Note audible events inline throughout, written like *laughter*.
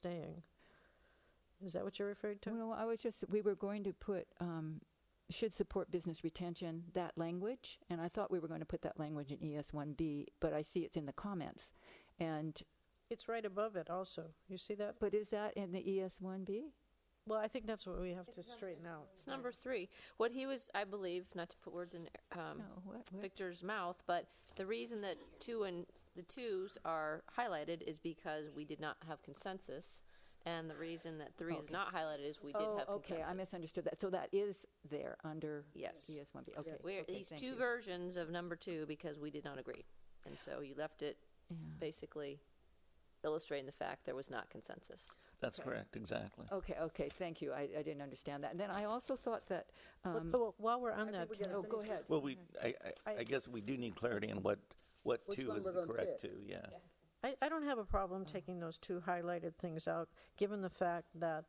staying. Is that what you referred to? Well, I was just, we were going to put, um, should support business retention, that language, and I thought we were going to put that language in E ES1B, but I see it's in the comments. And, It's right above it also. You see that? but is that in the E ES1B? Well, I think that's what we have to straighten out. It's number three. What he was, I believe, not to put words in um, No, what, where- Victor's mouth, but the reason that two and the twos are highlighted is because we did not have consensus, and the reason that three is Oh, Okay. not highlighted is we did Oh, have okay, I consensus. misunderstood that. So that is there under E Yes. ES1B, okay. We're okay, these thank two you. versions of number two because we did not agree, and so you left it Yeah. basically illustrating the fact there was not consensus. That's correct, exactly. Okay, okay, thank you. I, I didn't understand that. And then I also thought that, um, But- but While we're on that, oh, go ahead. Well, we, I, I, I- I guess we do need clarity on what, what Which two one is we're the gonna correct pick. two, yeah. I, I don't have a problem taking those two highlighted things out, given the fact that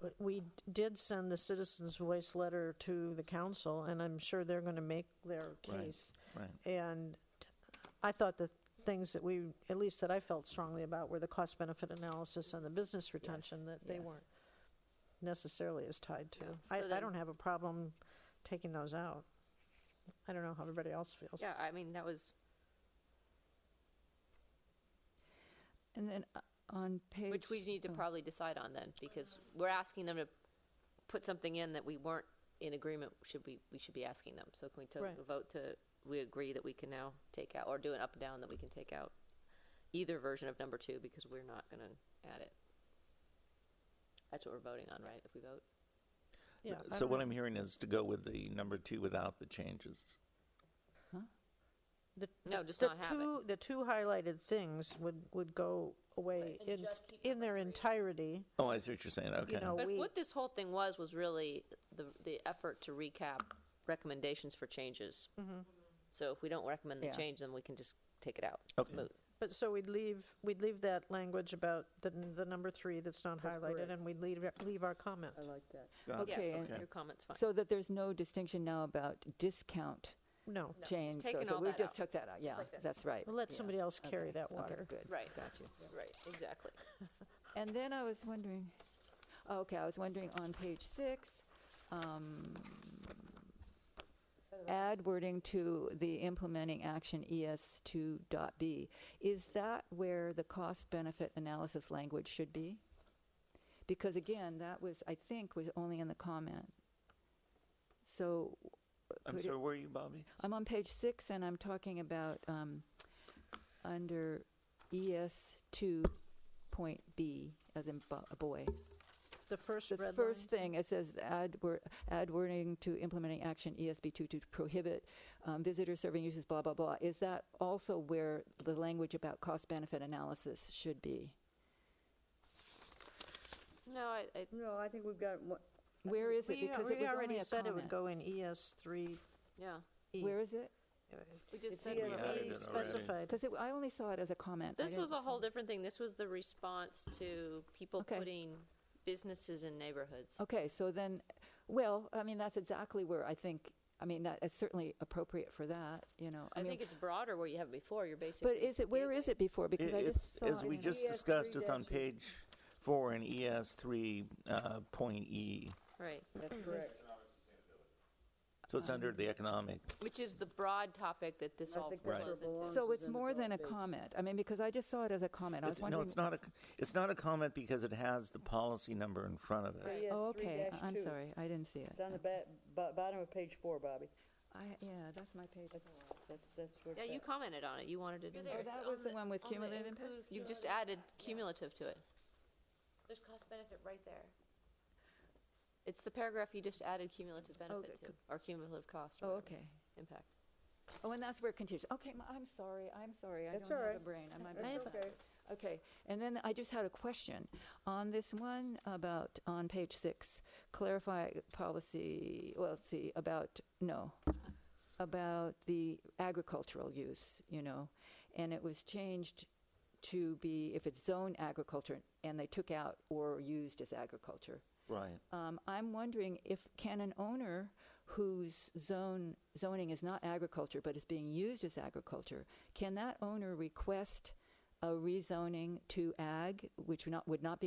w- we did send the citizens' voice letter to the council, and I'm sure they're going to make their Right. case. Right, And I thought the things that we, at least that I felt strongly about, were the cost benefit analysis and the business retention that they yes. weren't necessarily as tied to. Yeah, I, so I then- don't have a problem taking those out. I don't know how everybody else feels. Yeah, I mean that was And then uh, on page. Which we need to oh, probably decide on then, because we're asking them to put something in that we weren't in agreement, should we, we should be asking them. So can we Right. to vote to, we agree that we can now take out, or do an up and down that we can take out either version of number two, because we're not gonna add it. That's what we're voting on, right, if we vote? Yeah, I so don't what know. I'm hearing is to go with the number two without the changes. The- No, the- just the not have it. two- The two highlighted things would, would go away And in, just keep in their entirety. Oh, I see what you're saying, okay. know, But we- what this whole thing was, was really the, the effort to recap recommendations for changes. So if we don't recommend the Yeah. change, then we can just take it out. It's Okay. moot. But so we'd leave, we'd leave that language about the, n- the number three that's not That's highlighted, correct. and we'd leave, leave our comment. I like that. Got it. Yes, Okay, and- your comment's fine. So that there's no distinction now about discount No, change. so- taken so all we that just out. took that out, yeah, that's right. We'll let yeah, somebody else okay, carry that okay, water. Good. Right. Got you. Right, *laughs* exactly. And then I was wondering, okay, I was wondering on page six, um, add wording to the implementing action E ES 2.b. Is that where the cost benefit analysis language should be? Because again, that was, I think, was only in the comment. So I'm could it- sorry, where are you, Bobby? I'm on page six, and I'm talking about um, under ES two point B, as in bo- a boy. the first The red first line. thing it says add, wor- add wording to implementing action ESB two to prohibit um, visitor serving uses. Blah blah blah. Is that also where the language about cost benefit analysis should be? No, I, I, No, I think we've got, one- Where is it? We Because it we was only already a said it would comment. go E. in ES three. yeah, Where is it? we just It's said. here. we- Yeah. added it already. E Specified. Because I only saw it as a comment. I This was didn't a whole different thing. This was the response to people Okay. Oh, putting businesses in neighborhoods. Okay, so then, well, I mean, that's exactly where I think, I mean, that is certainly appropriate for that, you know. I mean, think it's broader where you have before, you're basically. But is it, where is it before? Because I It- just It's, saw. as it we in- just ES3 discussed, it's on dash- page four in ES three, uh, point E. Right, that's correct. So it's under the economic, which is the broad topic that this I all think that's flows where it into. belongs. So is it's in the more than a broad page. comment. I mean, because I just saw it as a comment. I was it's- no, wondering. it's not a, it's not a comment because it has the policy number in front of it. Right. Oh, okay, I- I'm ES3-2. sorry, I didn't see it. It's on the ba- bo- bottom of page four, Bobby. I, yeah, that's my page. That's, that's, that's where. Yeah, it's you at. commented on it. You wanted it in Oh, there. that was the one with cumulative impact? You just added cumulative to it. There's cost benefit right there. It's the paragraph you just added cumulative benefit that to, or cumulative cost. or Oh, whatever, okay. Impact. Oh, and that's where it continues. Okay, m- I'm sorry, I'm sorry, I That's don't have a alright. brain. I might be That's flat. okay. Okay, and then I just had a question on this one about, on page six, clarify policy, well, let's see, about, no, about the agricultural use, you know, and it was changed to be if it's zone agriculture, and they took out or used as agriculture. Right. Um, I'm wondering if, can an owner whose zone, zoning is not agriculture, but is being used as agriculture, can that owner request a rezoning to ag, which would not, would not be